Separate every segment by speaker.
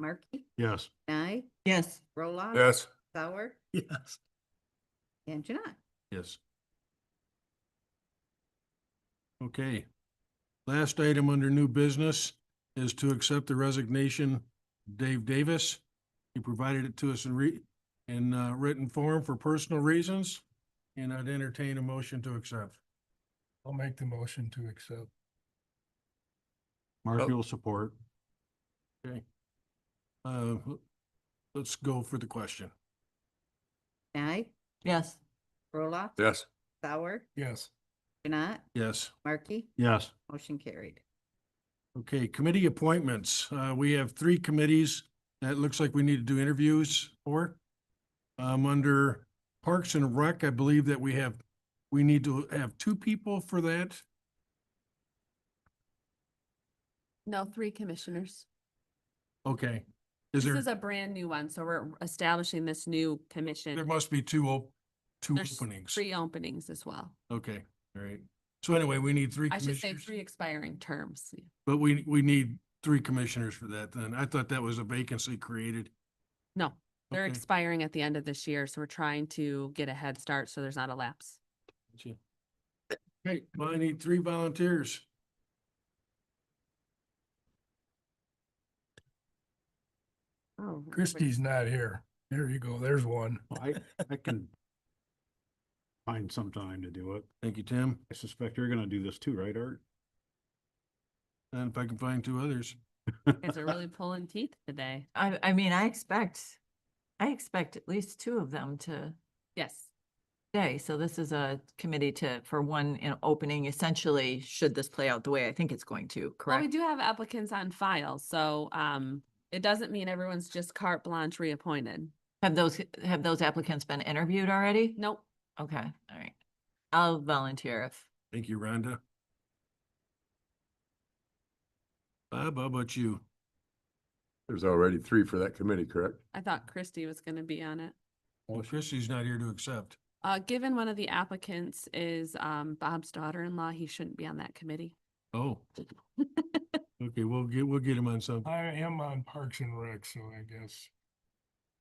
Speaker 1: Markey,
Speaker 2: Yes.
Speaker 1: Nye,
Speaker 3: Yes.
Speaker 1: Roloff.
Speaker 2: Yes.
Speaker 1: Sauer,
Speaker 2: Yes.
Speaker 1: and Janai.
Speaker 2: Yes. Okay. Last item under new business is to accept the resignation of Dave Davis. He provided it to us in re, in uh, written form for personal reasons, and I'd entertain a motion to accept.
Speaker 4: I'll make the motion to accept.
Speaker 2: Mark,
Speaker 4: you'll
Speaker 2: support. Okay. Uh, let's go for the question.
Speaker 1: Nye,
Speaker 3: Yes.
Speaker 1: Roloff.
Speaker 2: Yes.
Speaker 1: Sauer,
Speaker 4: Yes,
Speaker 1: Janai,
Speaker 2: Yes.
Speaker 1: Markey,
Speaker 2: Yes.
Speaker 1: motion carried.
Speaker 2: Okay, committee appointments. Uh, we have three committees that it looks like we need to do interviews for. Um, under Parks and Rec, I believe that we have, we need to have two people for that.
Speaker 5: No, three commissioners.
Speaker 2: Okay. Is
Speaker 5: This
Speaker 2: there,
Speaker 5: is a brand new one, so we're establishing this new
Speaker 2: there
Speaker 5: commission.
Speaker 2: must be two, op- two
Speaker 5: There's
Speaker 2: openings.
Speaker 5: Three openings as well.
Speaker 2: Okay, all right. So anyway, we need three
Speaker 5: I should say three
Speaker 2: commissioners,
Speaker 5: expiring terms.
Speaker 2: but we, we need three commissioners for that then. I thought that was a vacancy created.
Speaker 5: No, they're
Speaker 2: Okay.
Speaker 5: expiring at the end of this year, so we're trying to get a head start so there's not a lapse.
Speaker 2: Okay, well, I need three volunteers.
Speaker 5: Oh,
Speaker 4: Christie's not here. There you go. There's one.
Speaker 6: I, I can find some time to do it.
Speaker 2: Thank you, Tim.
Speaker 6: I suspect you're gonna do this too, right, Art?
Speaker 2: And if I can find two others.
Speaker 5: Guys are really pulling teeth today.
Speaker 3: I, I mean, I expect, I expect at least two of them to
Speaker 5: Yes.
Speaker 3: stay. So this is a committee to, for one, you know, opening essentially, should this play out the way I think it's going to,
Speaker 5: Well,
Speaker 3: correct?
Speaker 5: Oh, we do have applicants on file, so, um, it doesn't mean everyone's just carte blanche reappointed.
Speaker 3: Have those, have those applicants been interviewed already?
Speaker 5: Nope.
Speaker 3: Okay, all right. I'll volunteer if,
Speaker 2: Thank you, Rhonda. Bob, how about you?
Speaker 7: There's already three for that committee, correct?
Speaker 5: I thought Christie was gonna be on it.
Speaker 2: Well, Christie's not here to accept.
Speaker 5: Uh, given one of the applicants is, um, Bob's daughter-in-law, he shouldn't be on that committee.
Speaker 2: Oh. Okay, we'll get, we'll get him on some.
Speaker 4: I am on Parks and Rec, so I guess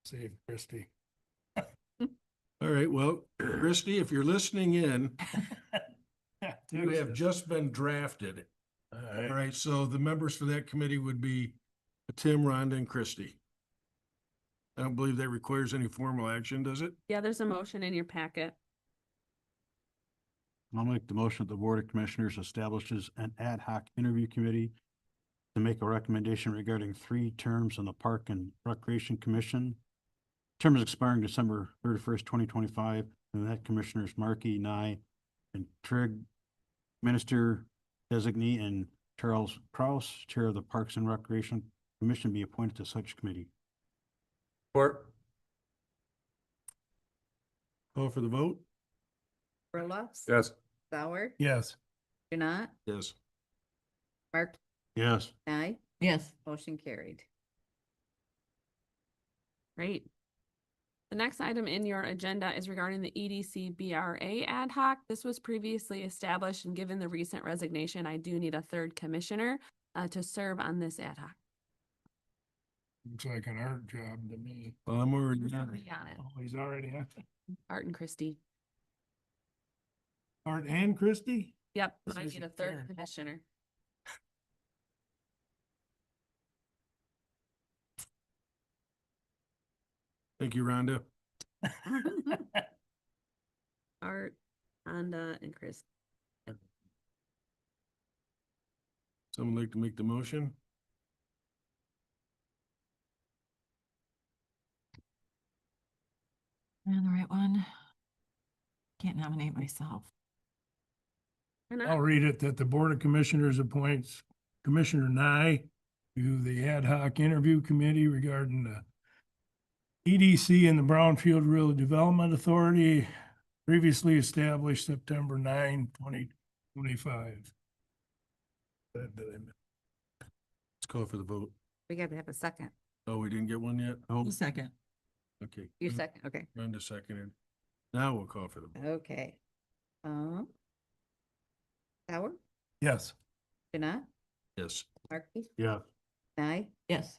Speaker 4: save Christie.
Speaker 2: All right, well, Christie, if you're listening in, you have
Speaker 4: Tuesday.
Speaker 2: just been drafted.
Speaker 4: All
Speaker 2: All
Speaker 4: right.
Speaker 2: right, so the members for that committee would be Tim, Rhonda, and Christie. I don't believe that requires any formal action, does it?
Speaker 5: Yeah, there's a motion in your packet.
Speaker 6: I'll make the motion that the Board of Commissioners establishes an ad hoc interview committee to make a recommendation regarding three terms on the Park and Recreation Commission. Term is expiring December thirty-first, twenty twenty-five, and that Commissioners Markey, Nye, and Trigg, Minister Designee, and Charles Kraus, Chair of the Parks and Recreation Commission, be appointed to such committee.
Speaker 7: Support.
Speaker 2: Call for the vote?
Speaker 1: Roloff.
Speaker 7: Yes.
Speaker 1: Sauer,
Speaker 4: Yes,
Speaker 1: Janai,
Speaker 2: Yes.
Speaker 1: Markey,
Speaker 6: Yes.
Speaker 1: Nye,
Speaker 3: yes.
Speaker 1: motion carried.
Speaker 5: Great. The next item in your agenda is regarding the E EDC BRA ad hoc. This was previously established and given the recent resignation, I do need a third commissioner uh, to serve on this ad hoc.
Speaker 4: looks like an art job to me.
Speaker 2: Well, I'm already,
Speaker 5: Already on it.
Speaker 4: Oh, he's already on.
Speaker 5: Art and Christie.
Speaker 4: Art and Christie?
Speaker 5: Yep,
Speaker 4: This
Speaker 5: I
Speaker 4: is
Speaker 5: need
Speaker 4: a
Speaker 5: a third
Speaker 4: third.
Speaker 5: commissioner.
Speaker 2: thank you, Rhonda.
Speaker 5: Art, Rhonda, and Chris.
Speaker 2: Someone like to make the motion?
Speaker 3: Am I on the right one? Can't nominate myself.
Speaker 5: And I-
Speaker 4: I'll read it that the Board of Commissioners appoints Commissioner Nye to the ad hoc interview committee regarding the EDC and the Brownfield Real Development Authority previously established September 9, 2025. That- that I missed.
Speaker 2: Let's call for the vote.
Speaker 1: We got to have a second.
Speaker 2: Oh, we didn't get one yet? Oh,
Speaker 3: Second.
Speaker 2: okay.
Speaker 1: You second, okay,
Speaker 2: Brenda seconded. Now we'll call for the, vote.
Speaker 1: okay. Um. Sauer,
Speaker 4: Yes.
Speaker 1: Janai,
Speaker 2: yes.
Speaker 1: Markey,
Speaker 6: Yeah.
Speaker 1: Nye,
Speaker 3: Yes.